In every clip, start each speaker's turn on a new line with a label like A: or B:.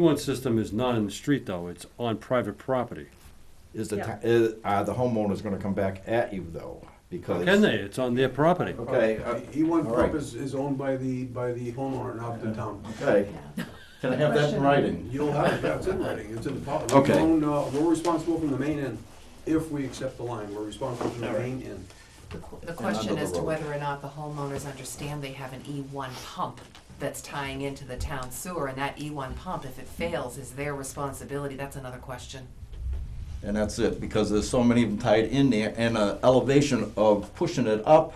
A: One system is not in the street though, it's on private property.
B: Is the,
C: Yeah.
B: ti- is, are the homeowners gonna come back at you though? Because.
A: Can they? It's on their property.
B: Okay, uh,
D: E one
B: all right.
D: pump is, is owned by the, by the homeowner, not the town.
B: Okay, can I have that in writing?
D: You'll have, it. that's in writing, it's in the policy.
B: Okay.
D: uh, We're responsible from the main end, if we accept the line, we're responsible from the main end.
E: The qu- The
B: And
E: question
B: under the
E: as to
B: road.
E: whether or not the homeowners understand they have an E1 pump that's tying into the town sewer, and that E1 pump, if it fails, is their responsibility, that's another question.
B: And that's it, because there's so many of them tied in there, and a elevation of pushing it up.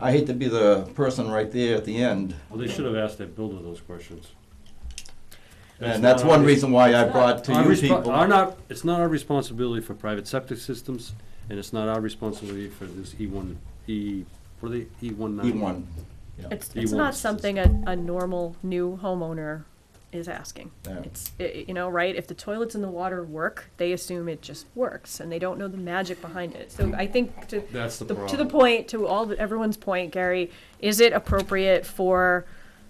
B: I hate to be the person right there at the end,
A: Well, they should have asked their builder those questions.
B: and that's
A: not
B: one
A: our-
B: reason why I brought to
A: Our
B: you
A: respo- Our
B: people.
A: not, it's not our responsibility for private septic systems, and it's not our responsibility for this E one, E, what are they, E one nine?
B: E one,
C: It's,
A: He
C: it's not
A: wants to-
C: something a, a normal new homeowner is asking.
B: Yeah.
C: It's, i- i- you know, right, if the toilets in the water work, they assume it just works, and they don't know the magic behind it. So I think to,
A: That's the
C: the- to the
A: problem.
C: point, to all, the- everyone's point, Gary, is it appropriate for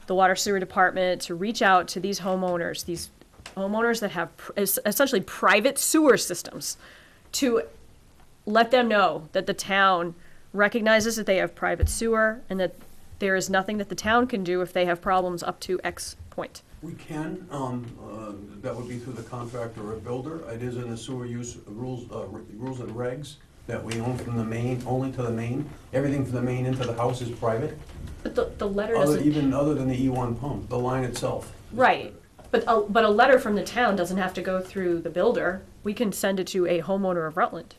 C: the water sewer department to reach out to these homeowners, these homeowners that have pr- es- essentially private sewer systems, to let them know that the town recognizes that they have private sewer and that there is nothing that the town can do if they have problems up to X point.
D: We can, um, uh, that would be through the contractor or builder, it is in the sewer use rules, uh, re- rules and regs that we own from the main, only to the main, everything from the main into the house is private,
C: But the, the letter
D: other,
C: doesn't,
D: even other than the E one pump, the line itself. is
C: right,
D: private.
C: but a, but a letter from the town doesn't have to go through the builder. We can send it to a homeowner of Rutland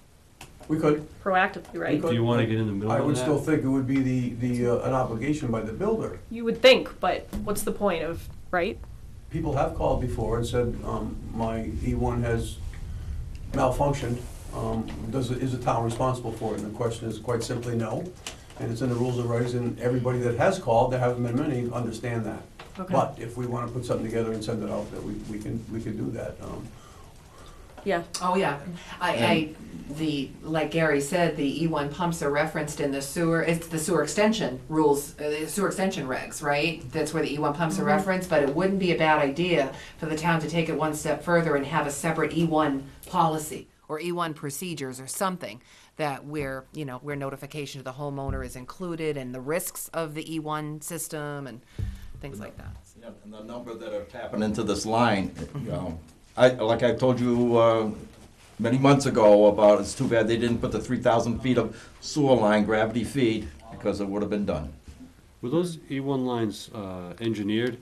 D: We could,
C: proactively, right?
A: Do you wanna get in the middle
D: I
A: of
D: would still
A: that?
D: think it would be the, the, uh, an obligation by the builder.
C: You would think, but what's the point of, right?
D: People have called before and said, um, my E1 has malfunctioned. Um, Does, it- is the town responsible for it? And the question is quite simply no. And it's in the rules of rights, and everybody that has called, there haven't been many, understand that.
C: Okay.
D: But if we want to put something together and send it out, that we, we can, we can do that. Um,
C: Yeah.
E: Oh, yeah, I, I, the, like Gary said, the E1 pumps are referenced in the sewer, it's the sewer extension rules, uh, the sewer extension regs, right? That's where the E1 pumps are referenced, but it wouldn't be a bad idea for the town to take it one step further and have a separate E1 policy or E1 procedures or something that where, you know, where notification to the homeowner is included and the risks of the E1 system and things like that.
B: Yeah, and the number that are tapping into this line, you know, I, like I told you, uh, many months ago about, it's too bad they didn't put the three thousand feet of sewer line gravity feed, because it would have been done.
A: Were those E one lines, uh, engineered?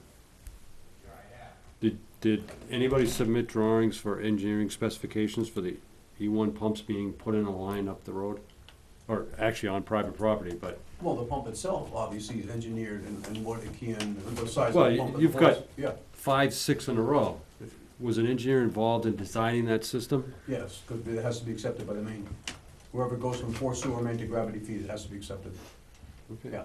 A: Did, did anybody submit drawings for engineering specifications for the E one pumps being put in a line up the road? Or actually on private property, but
D: Well, the pump itself, obviously, is engineered and and what it can, the size
A: Well,
D: of the
A: you-
D: pump. and the
A: you've got-
D: force. Yeah,
A: five, six in a row. Was an engineer involved in designing that system?
D: yes, because it has to be accepted by the main. Whoever goes from force sewer main to gravity feed, it has to be accepted.
A: Okay.
D: Yeah.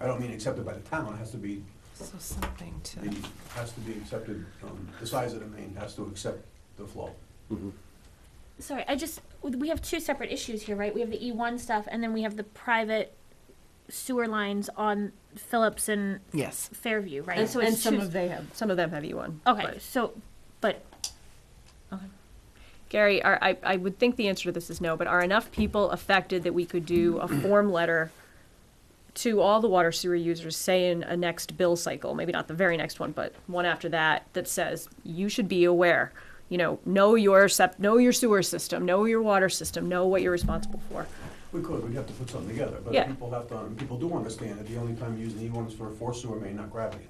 D: I don't mean accepted by the town, it has to be,
E: So something to.
D: it has to be accepted, um, the size of the main has to accept the flow.
A: Mhm.
F: Sorry, I just we have two separate issues here, right? We have the E1 stuff, and then we have the private sewer lines on Phillips and
E: Yes.
F: Fairview, right?
C: And, and some
F: two-
C: of they have, some of them have E1.
F: okay,
C: but-
F: so but
C: Gary, are, I, I would think the answer to this is no, but are enough people affected that we could do a form letter to all the water sewer users, say in a next bill cycle, maybe not the very next one, but one after that, that says, you should be aware. You know, know your sep, know your sewer system, know your water system, know what you're responsible for.
D: We could, we'd have to put something together, but
C: Yeah.
D: people have to, and people do understand that the only time you use an E one is for a force sewer main, not gravity.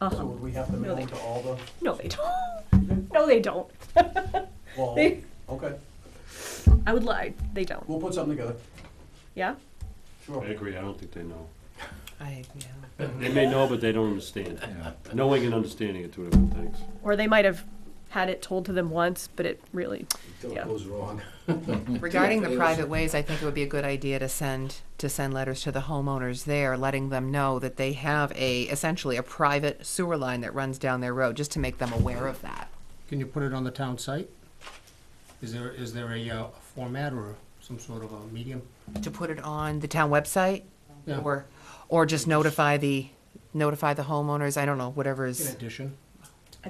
C: Uh-huh.
D: So would we have to
C: No,
D: mail
C: they-
D: it to all the,
C: No, they don't. No, they don't.
D: well,
C: They-
D: okay,
C: I would lie, they don't.
D: we'll put something together,
C: Yeah?
D: sure.
A: I agree, I don't think they know.
E: I, yeah.
A: They may know, but they don't understand.
B: Yeah.
A: Knowing and understanding are two different things.
C: Or they might have had it told to them once, but it really, yeah.
E: Regarding the private ways, I think it would be a good idea to send, to send letters to the homeowners there, letting them know that they have a, essentially a private sewer line that runs down their road, just to make them aware of that.
G: Can you put it on the town site? Is there, is there a uh, format or some sort of a medium?
E: To put it on the town website,
G: Yeah.
E: or, or just notify the, notify the homeowners, I don't know, whatever
G: In
E: is,
G: addition,